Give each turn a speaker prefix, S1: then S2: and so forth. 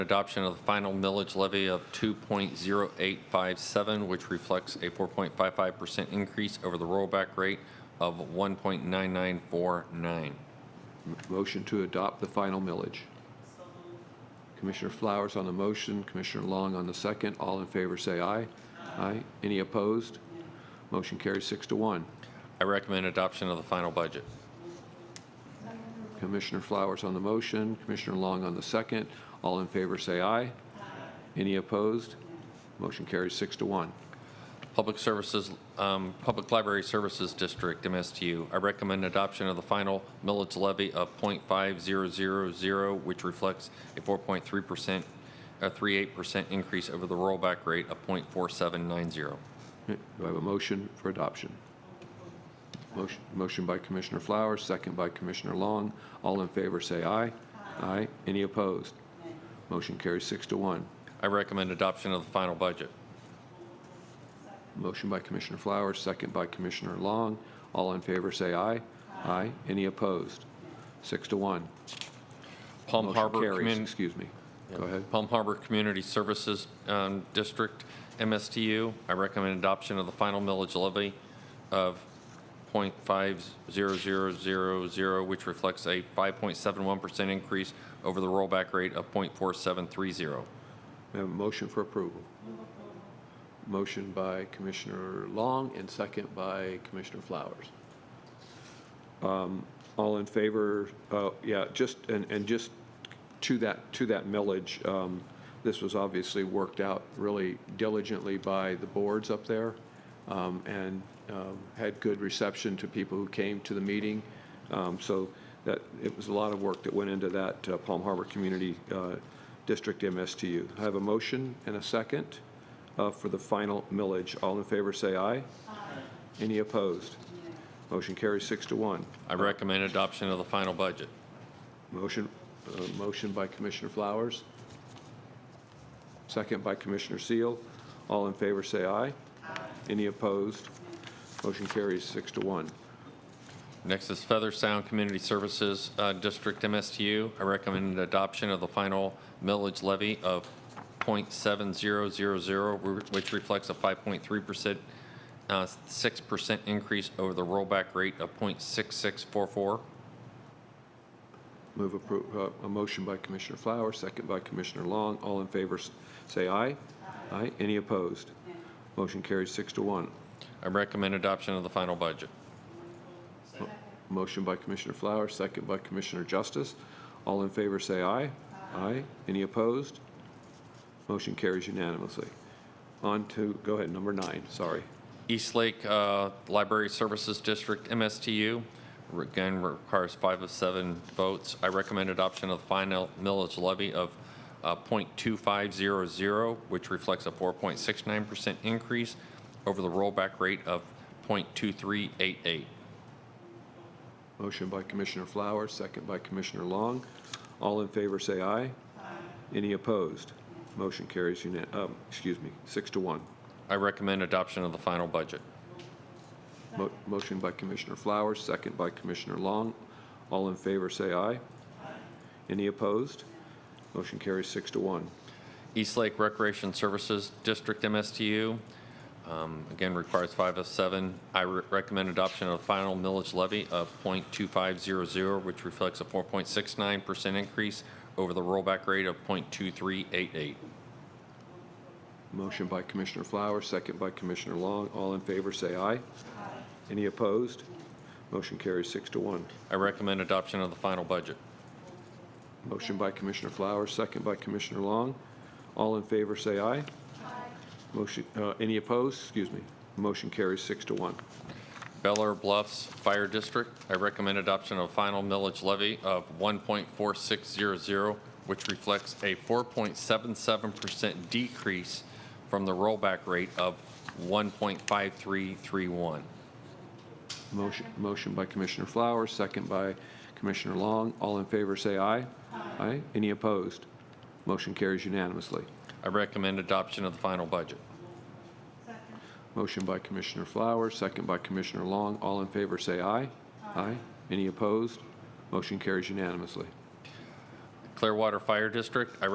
S1: Adoption of the final millage levy of 2.0857, which reflects a 4.55% increase over the rollback rate of 1.9949.
S2: M- Motion to adopt the final millage. Commissioner Flowers on the motion, Commissioner Long on the second. All in favor, say aye. Aye. Any opposed? Motion carries six to one.
S1: I recommend adoption of the final budget.
S2: Commissioner Flowers on the motion, Commissioner Long on the second. All in favor, say aye. Any opposed? Motion carries six to one.
S1: Public Services, um, Public Library Services District, MSTU. I recommend adoption of the final millage levy of .5000, which reflects a 4.3%, a 38% increase over the rollback rate of .4790.
S2: Do I have a motion for adoption? Motion motion by Commissioner Flowers, second by Commissioner Long. All in favor, say aye. Aye. Any opposed? Motion carries six to one.
S1: I recommend adoption of the final budget.
S2: Motion by Commissioner Flowers, second by Commissioner Long. All in favor, say aye. Aye. Any opposed? Six to one.
S1: Palm
S2: Motion
S1: Harbor
S2: carries.
S1: Community.
S2: Excuse me. Go ahead.
S1: Palm Harbor Community Services um, District, MSTU. I recommend adoption of the final millage levy of .50000, which reflects a 5.71% increase over the rollback rate of .4730.
S2: We have a motion for approval. Motion by Commissioner Long and second by Commissioner Flowers. Um, All in favor, uh, yeah, just, and, and just to that, to that millage, um, this was obviously worked out really diligently by the boards up there um, and um, had good reception to people who came to the meeting. Um, So that, it was a lot of work that went into that uh, Palm Harbor Community uh, District MSTU. I have a motion and a second uh, for the final millage. All in favor, say aye. Aye. Any opposed? Motion carries six to one.
S1: I recommend adoption of the final budget.
S2: Motion, uh, motion by Commissioner Flowers. Second by Commissioner Seal. All in favor, say aye. Aye. Any opposed? Motion carries six to one.
S1: Next is Feather Sound Community Services uh, District, MSTU. I recommend adoption of the final millage levy of .7000, which reflects a 5.3%, uh, 6% increase over the rollback rate of .6644.
S2: Move appro, uh, a motion by Commissioner Flowers, second by Commissioner Long. All in favor, s- say aye. Aye. Any opposed? Motion carries six to one.
S1: I recommend adoption of the final budget.
S2: Motion by Commissioner Flowers, second by Commissioner Justice. All in favor, say aye. Aye. Any opposed? Motion carries unanimously. On to, go ahead, number nine, sorry.
S1: Eastlake uh, Library Services District, MSTU, again requires five of seven votes. I recommend adoption of the final millage levy of uh, .2500, which reflects a 4.69% increase over the rollback rate of .2388.
S2: Motion by Commissioner Flowers, second by Commissioner Long. All in favor, say aye. Any opposed? Motion carries unan, um, excuse me, six to one.
S1: I recommend adoption of the final budget.
S2: Mo- Motion by Commissioner Flowers, second by Commissioner Long. All in favor, say aye. Any opposed? Motion carries six to one.
S1: Eastlake Recreation Services District MSTU, um, again, requires five of seven. I re- recommend adoption of the final millage levy of .2500, which reflects a 4.69% increase over the rollback rate of .2388.
S2: Motion by Commissioner Flowers, second by Commissioner Long. All in favor, say aye. Any opposed? Motion carries six to one.
S1: I recommend adoption of the final budget.
S2: Motion by Commissioner Flowers, second by Commissioner Long. All in favor, say aye. Motion, uh, any opposed? Excuse me. Motion carries six to one.
S1: Bel Air Bluffs Fire District, I recommend adoption of final millage levy of 1.4600, which reflects a 4.77% decrease from the rollback rate of 1.5331.
S2: Motion, motion by Commissioner Flowers, second by Commissioner Long. All in favor, say aye. Aye. Any opposed? Motion carries unanimously.
S1: I recommend adoption of the final budget.
S2: Motion by Commissioner Flowers, second by Commissioner Long. All in favor, say aye. Aye. Any opposed? Motion carries unanimously.
S1: Clearwater Fire District, I